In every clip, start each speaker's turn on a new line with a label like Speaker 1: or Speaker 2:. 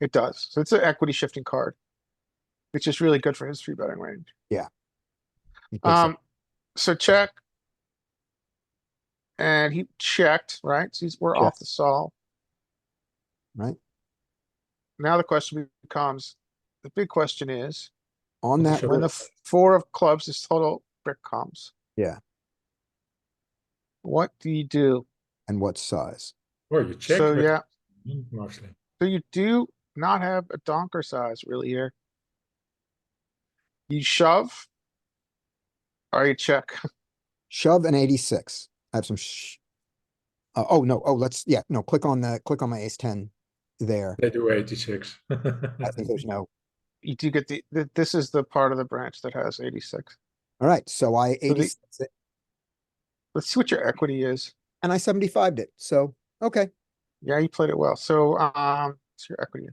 Speaker 1: It does. So it's an equity shifting card. Which is really good for his three betting range.
Speaker 2: He picks up-
Speaker 1: Um, so check. And he checked, right? So he's, we're
Speaker 2: Check.
Speaker 1: off the solve.
Speaker 2: Right.
Speaker 1: Now the question becomes, the big question is,
Speaker 2: On that,
Speaker 1: when the
Speaker 2: river-
Speaker 1: f- four of clubs is total brick comes.
Speaker 2: Yeah.
Speaker 1: What do you do?
Speaker 2: and what size?
Speaker 3: Well, you check.
Speaker 1: So,
Speaker 3: but-
Speaker 1: yeah,
Speaker 3: Mostly.
Speaker 1: so you do not have a donker size really here. You shove. Or you check.
Speaker 2: Shove an eighty-six. I have some sh- uh, oh, no, oh, let's, yeah, no, click on the, click on my ace ten there.
Speaker 3: They do eighty-six.
Speaker 2: I think there's no,
Speaker 1: You do get the, th- this is the part of the branch that has eighty-six.
Speaker 2: all right, so I
Speaker 1: the-
Speaker 2: eighty-six it,
Speaker 1: Let's see what your equity is.
Speaker 2: and I seventy-fived it, so, okay.
Speaker 1: Yeah, you played it well. So, um, what's your equity?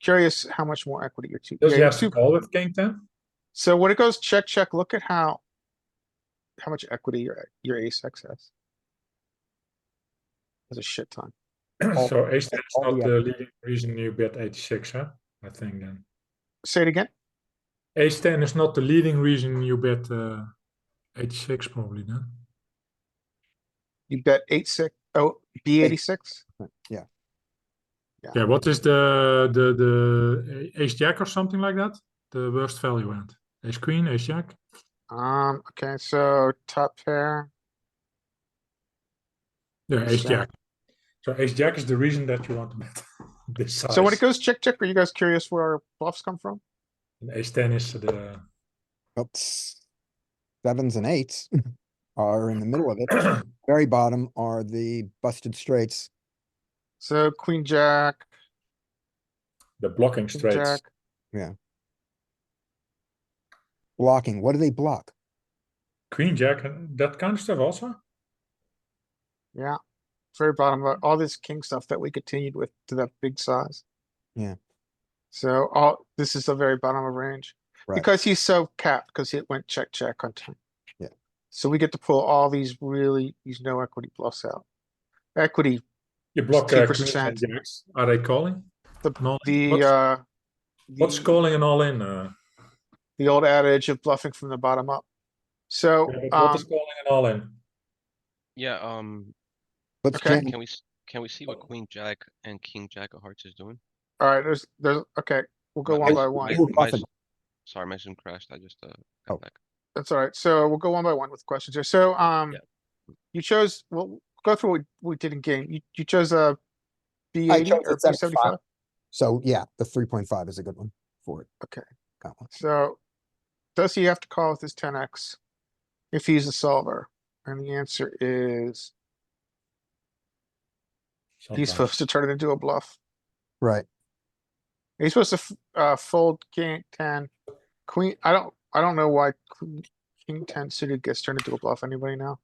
Speaker 1: Curious how much more equity you're two.
Speaker 3: Does
Speaker 1: yeah,
Speaker 3: he
Speaker 1: you're
Speaker 3: have
Speaker 1: two-
Speaker 3: to call with king ten?
Speaker 1: So when it goes check, check, look at how. How much equity your, your ace X has. That's a shit ton.
Speaker 2: All-
Speaker 3: So ace ten is
Speaker 2: all
Speaker 3: not
Speaker 2: the-
Speaker 3: the leading reason you bet eighty-six, huh? I think then.
Speaker 1: Say it again.
Speaker 3: Ace ten is not the leading reason you bet, uh, eighty-six probably then.
Speaker 1: You bet eight six, oh, B eighty-six?
Speaker 3: Yeah, what is the, the, the a- ace jack or something like that? The worst value end? Ace queen, ace jack?
Speaker 1: Um, okay, so top pair.
Speaker 3: Yeah,
Speaker 1: Ace
Speaker 3: ace
Speaker 1: jack.
Speaker 3: jack. So ace jack is the reason that you want to bet this size.
Speaker 1: So when it goes check, check, are you guys curious where our bluffs come from?
Speaker 3: And Ace ten is the,
Speaker 2: Oops. Sevens and eights are in the middle of it. Very bottom are the busted straights.
Speaker 1: So queen, jack,
Speaker 3: the blocking
Speaker 1: king,
Speaker 3: straights.
Speaker 1: jack.
Speaker 2: Blocking, what do they block?
Speaker 3: Queen jack, and that kind of stuff also?
Speaker 1: Yeah, very bottom, but all this king stuff that we continued with to that big size.
Speaker 2: Yeah.
Speaker 1: So all, this is the very bottom of range.
Speaker 2: Right.
Speaker 1: Because he's so capped, because it went check, check on time.
Speaker 2: Yeah.
Speaker 1: So we get to pull all these really, these no equity bluffs out. Equity,
Speaker 3: You block uh, queens
Speaker 1: 2%.
Speaker 3: and jacks. Are they calling?
Speaker 1: The-
Speaker 3: No,
Speaker 1: the,
Speaker 3: what's,
Speaker 1: uh.
Speaker 3: what's
Speaker 1: the-
Speaker 3: calling and all in? Uh,
Speaker 1: The old adage of bluffing from the bottom up. So,
Speaker 3: yeah, but what
Speaker 1: um,
Speaker 3: is calling and all in?
Speaker 4: Yeah, um,
Speaker 2: Let's
Speaker 1: Okay.
Speaker 2: jam-
Speaker 4: can we, s- can we see what queen jack and king jack of hearts is doing?
Speaker 1: alright, there's, there's, okay, we'll go
Speaker 4: My-
Speaker 1: one
Speaker 4: my-
Speaker 1: by
Speaker 4: my-
Speaker 1: one.
Speaker 2: Ooh,
Speaker 4: my
Speaker 2: Buffett.
Speaker 4: s- Sorry, my Zoom crashed, I just, uh. got
Speaker 2: Oh.
Speaker 4: back.
Speaker 1: That's alright. So we'll go one by one with questions here. So, um,
Speaker 4: Yeah.
Speaker 1: you chose, well, go through what we did in game. You, you chose a B
Speaker 2: I
Speaker 1: eighty
Speaker 2: chose
Speaker 1: or
Speaker 2: the
Speaker 1: B seventy-five?
Speaker 2: So yeah, the three point five is a good one for it.
Speaker 1: Okay.
Speaker 2: Got one.
Speaker 1: So does he have to call with his ten X if he's a solver? And the answer is he's
Speaker 3: Sometimes.
Speaker 1: supposed to turn it into a bluff.
Speaker 2: Right.
Speaker 1: He's supposed to f- uh fold king ten, queen. I don't I don't know why queen- king ten suited gets turned into a bluff. Anybody know?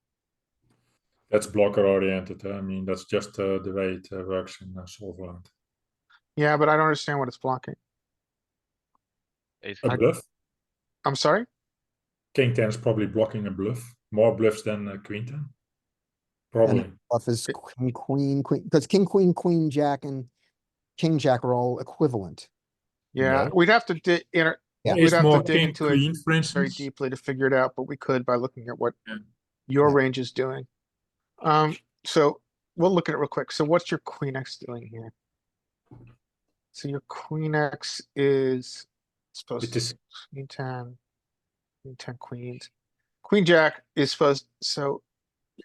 Speaker 3: That's blocker oriented. huh? I mean, that's just uh, the way it uh, works in uh, Solverland.
Speaker 1: Yeah, but I don't understand what it's blocking.
Speaker 4: Ace
Speaker 3: A
Speaker 4: king.
Speaker 3: bluff.
Speaker 1: I'm sorry.
Speaker 3: King ten is probably blocking a bluff. More bluffs than uh, queen ten. Probably.
Speaker 2: Bluff is
Speaker 1: It-
Speaker 2: queen, queen, queen, because king, queen, queen, jack and king, jack are all equivalent.
Speaker 1: Yeah,
Speaker 3: No.
Speaker 1: we'd have to di- inter-
Speaker 2: Yeah.
Speaker 1: we'd
Speaker 3: Ace
Speaker 1: have to
Speaker 3: more
Speaker 1: dig
Speaker 3: king
Speaker 1: into it
Speaker 3: queen, for
Speaker 1: very
Speaker 3: instance.
Speaker 1: deeply to figure it out, but we could by looking at what
Speaker 3: Yeah.
Speaker 1: your
Speaker 2: Yeah.
Speaker 1: range is doing. Um, so we'll look at it real quick. So what's your queen X doing here? So your queen X is supposed
Speaker 3: It
Speaker 1: to
Speaker 3: is
Speaker 1: Queen ten. Queen ten queens. Queen jack is supposed, so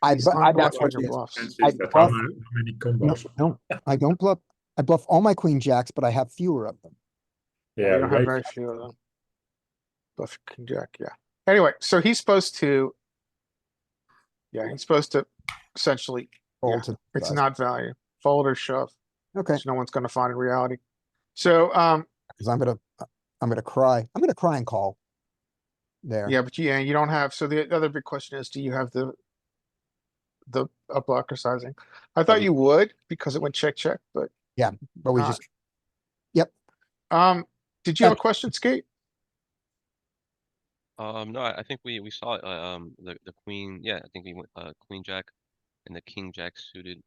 Speaker 2: I,
Speaker 1: he's
Speaker 2: bu- I,
Speaker 1: not
Speaker 2: that's
Speaker 1: blocking
Speaker 2: what
Speaker 1: your
Speaker 2: it is.
Speaker 1: bluffs.
Speaker 3: expensive,
Speaker 2: I
Speaker 3: that how
Speaker 2: bluff-
Speaker 3: ma- how many
Speaker 2: No,
Speaker 3: combos?
Speaker 2: no, I don't bluff. I bluff all my queen jacks, but I have fewer of them.
Speaker 1: You
Speaker 3: Yeah,
Speaker 1: don't have
Speaker 3: right.
Speaker 1: very few of them. Bluff your king jack, yeah. Anyway, so he's supposed to. Yeah, he's supposed to essentially,
Speaker 2: Fold
Speaker 1: Yeah,
Speaker 2: to the
Speaker 1: it's
Speaker 2: size.
Speaker 1: not value, fold or shove,
Speaker 2: Okay,
Speaker 1: which no one's gonna find in reality. So, um,
Speaker 2: because I'm gonna, I'm gonna cry. I'm gonna cry and call. There.
Speaker 1: yeah, but yeah, you don't have, so the other big question is, do you have the? The, a blocker sizing? I thought you would because it went check, check, but
Speaker 2: But we
Speaker 1: Uh,
Speaker 2: just,
Speaker 1: Um, did you have a
Speaker 2: Yeah.
Speaker 1: question, Skate?
Speaker 4: Um, no, I I think we, we saw, it, uh, um, the, the queen, yeah, I think we went, uh, queen jack and the king jack suited